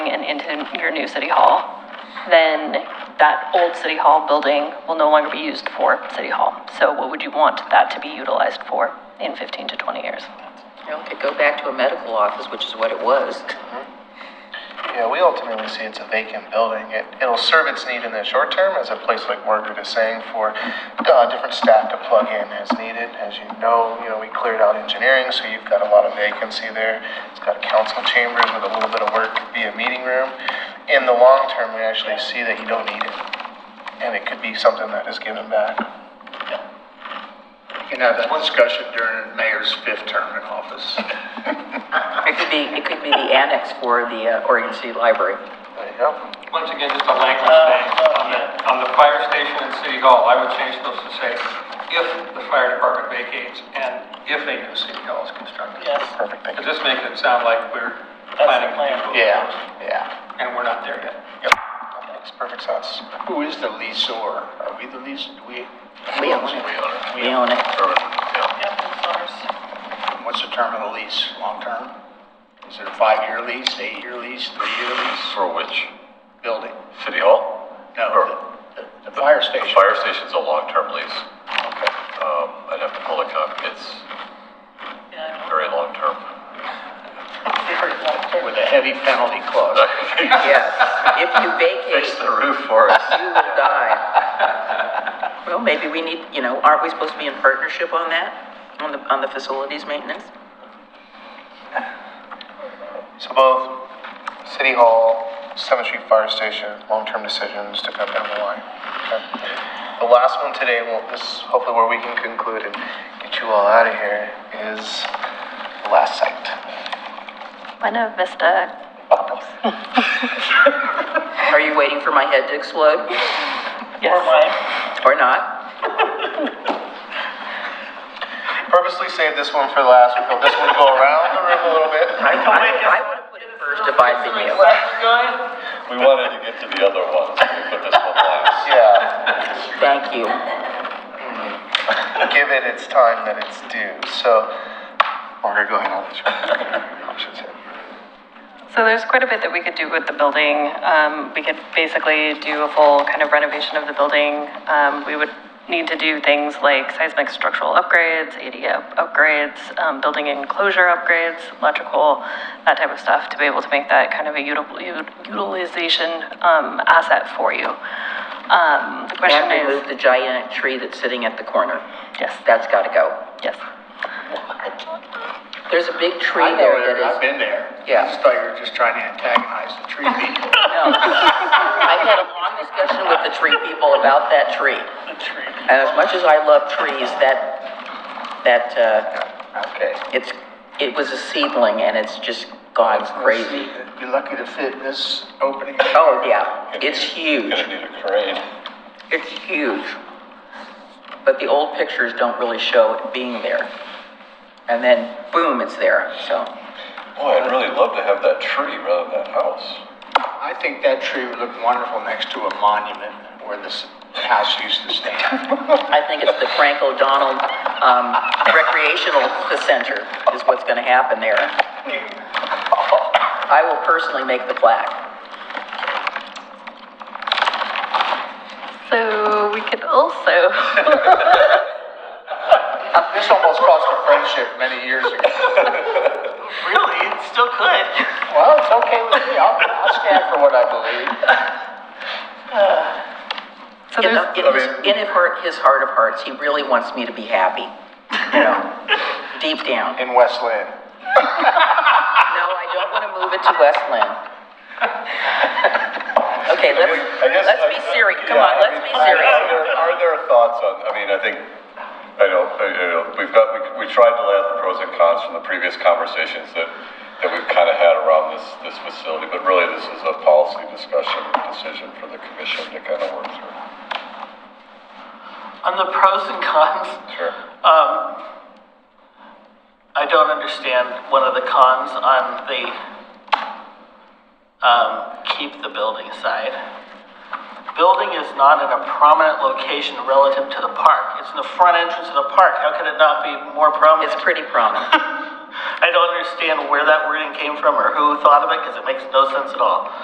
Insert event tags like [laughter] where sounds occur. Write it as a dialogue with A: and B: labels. A: into your new city hall, then that old city hall building will no longer be used for city hall. So what would you want that to be utilized for in 15 to 20 years?
B: You know, it could go back to a medical office, which is what it was.
C: Yeah, we ultimately see it's a vacant building. It, it'll serve its need in the short term as a place like Margaret is saying for uh, different staff to plug in as needed. As you know, you know, we cleared out engineering, so you've got a lot of vacancy there. It's got council chambers with a little bit of work via meeting room. In the long term, we actually see that you don't need it. And it could be something that is given back.
D: You can have that discussion during the mayor's fifth term in
C: [laughs]
D: office.
B: It could be, it could be the annex for the uh, Oregon City Library.
C: There you go.
E: Once again, just a language
F: Uh,
E: thing, on the, on the fire station and city hall, I would change those to say, if the fire department vacates and if a new city hall is constructed.
C: Perfect, thank
E: Because
C: you.
E: this makes it sound like we're planning to do both.
C: Yeah, yeah.
E: And we're not there yet.
C: Yep. That makes perfect sense.
D: Who is the leaseor? Are we the lease, do we?
B: We own it. We own it.
D: Yeah. What's the term of the lease, long term? Is it a five-year lease, eight-year lease, three-year lease,
G: For which?
D: building?
G: City Hall?
D: No,
G: Or-
D: the, the- the fire
G: The
D: station.
G: fire station's a long-term lease.
D: Okay.
G: Um, I'd have to pull a copy. It's very long-term. [laughs]
D: With a heavy penalty clause.
B: Yes. If you
G: Fix
B: vacate,
G: the roof for us.
B: you will die. Well, maybe we need, you know, aren't we supposed to be in partnership on that? On the, on the facilities maintenance?
C: So both City Hall, 7th Street Fire Station, long-term decisions to come down the line. Okay. The last one today, well, this is hopefully where we can conclude and get you all out of here, is the last site.
A: Buena Vista Commons.
B: Are you waiting for my head to explode?
A: Yes.
B: Or not?
C: Purposely saved this one for last. We thought this one would go around the room a little bit.
B: I would have put it first if I'd been you.
G: We wanted to get to the other ones. We put this one last.
C: Yeah,
B: Thank you.
C: give it its time that it's due. So, Margaret, go ahead. I'll let you. Options here.
A: So there's quite a bit that we could do with the building. Um, we could basically do a full kind of renovation of the building. Um, we would need to do things like seismic structural upgrades, ADA upgrades, um, building enclosure upgrades, electrical, that type of stuff to be able to make that kind of a util- ut- utilization um, asset for you. Um, the question
B: And remove
A: is,
B: the giant tree that's sitting at the corner.
A: yes,
B: That's gotta go.
A: yes.
B: There's a big tree
D: I know
B: there
D: it, I've
B: that is.
D: been there.
B: Yeah.
D: I just thought you were just trying to antagonize the tree people.
B: I've had a long discussion with the tree people about that tree.
D: The tree.
B: And as much as I love trees, that, that, uh,
D: Okay.
B: it's, it was a seedling and it's just gone crazy.
D: You're lucky to fit in this opening.
B: Oh, yeah, it's huge,
G: Gonna need a crane.
B: it's huge. But the old pictures don't really show it being there. And then boom, it's there, so.
G: Boy, I'd really love to have that tree rather than that house.
D: I think that tree would look wonderful next to a monument where this house used to stand.
B: I think it's the Frank O'Donnell, um, recreational center is what's gonna happen there. I will personally make the plaque.
A: So we could also, [laughs]
C: This almost cost a friendship many years ago.
F: Really? It still could.
D: Well, it's okay with me. I'll, I'll stand for what I believe.
A: so
B: In
A: there's.
B: the- in his, in his heart, his heart of hearts, he really wants me to be happy, you know, deep down.
C: In West Lynn.
B: No, I don't want to move it to Westland. Okay, let's,
G: I guess-
B: let's be
G: I-
B: serious, come
G: yeah,
B: on,
G: I
B: let's
G: mean,
B: be
G: are
B: serious.
G: there- Are there thoughts on, I mean, I think, I know, I I know, we've got, we, we tried to lay out the pros and cons from the previous conversations that, that we've kind of had around this, this facility, but really this is a policy discussion, decision for the commission to kind of work through.
F: On the pros and cons,
G: Sure.
F: um, I don't understand one of the cons on the um, keep the building side. Building is not in a prominent location relative to the park. It's in the front entrance of the park. How could it not be more prominent?
B: It's pretty prominent.
F: I don't understand where that wording came from or who thought of it because it makes no sense at all.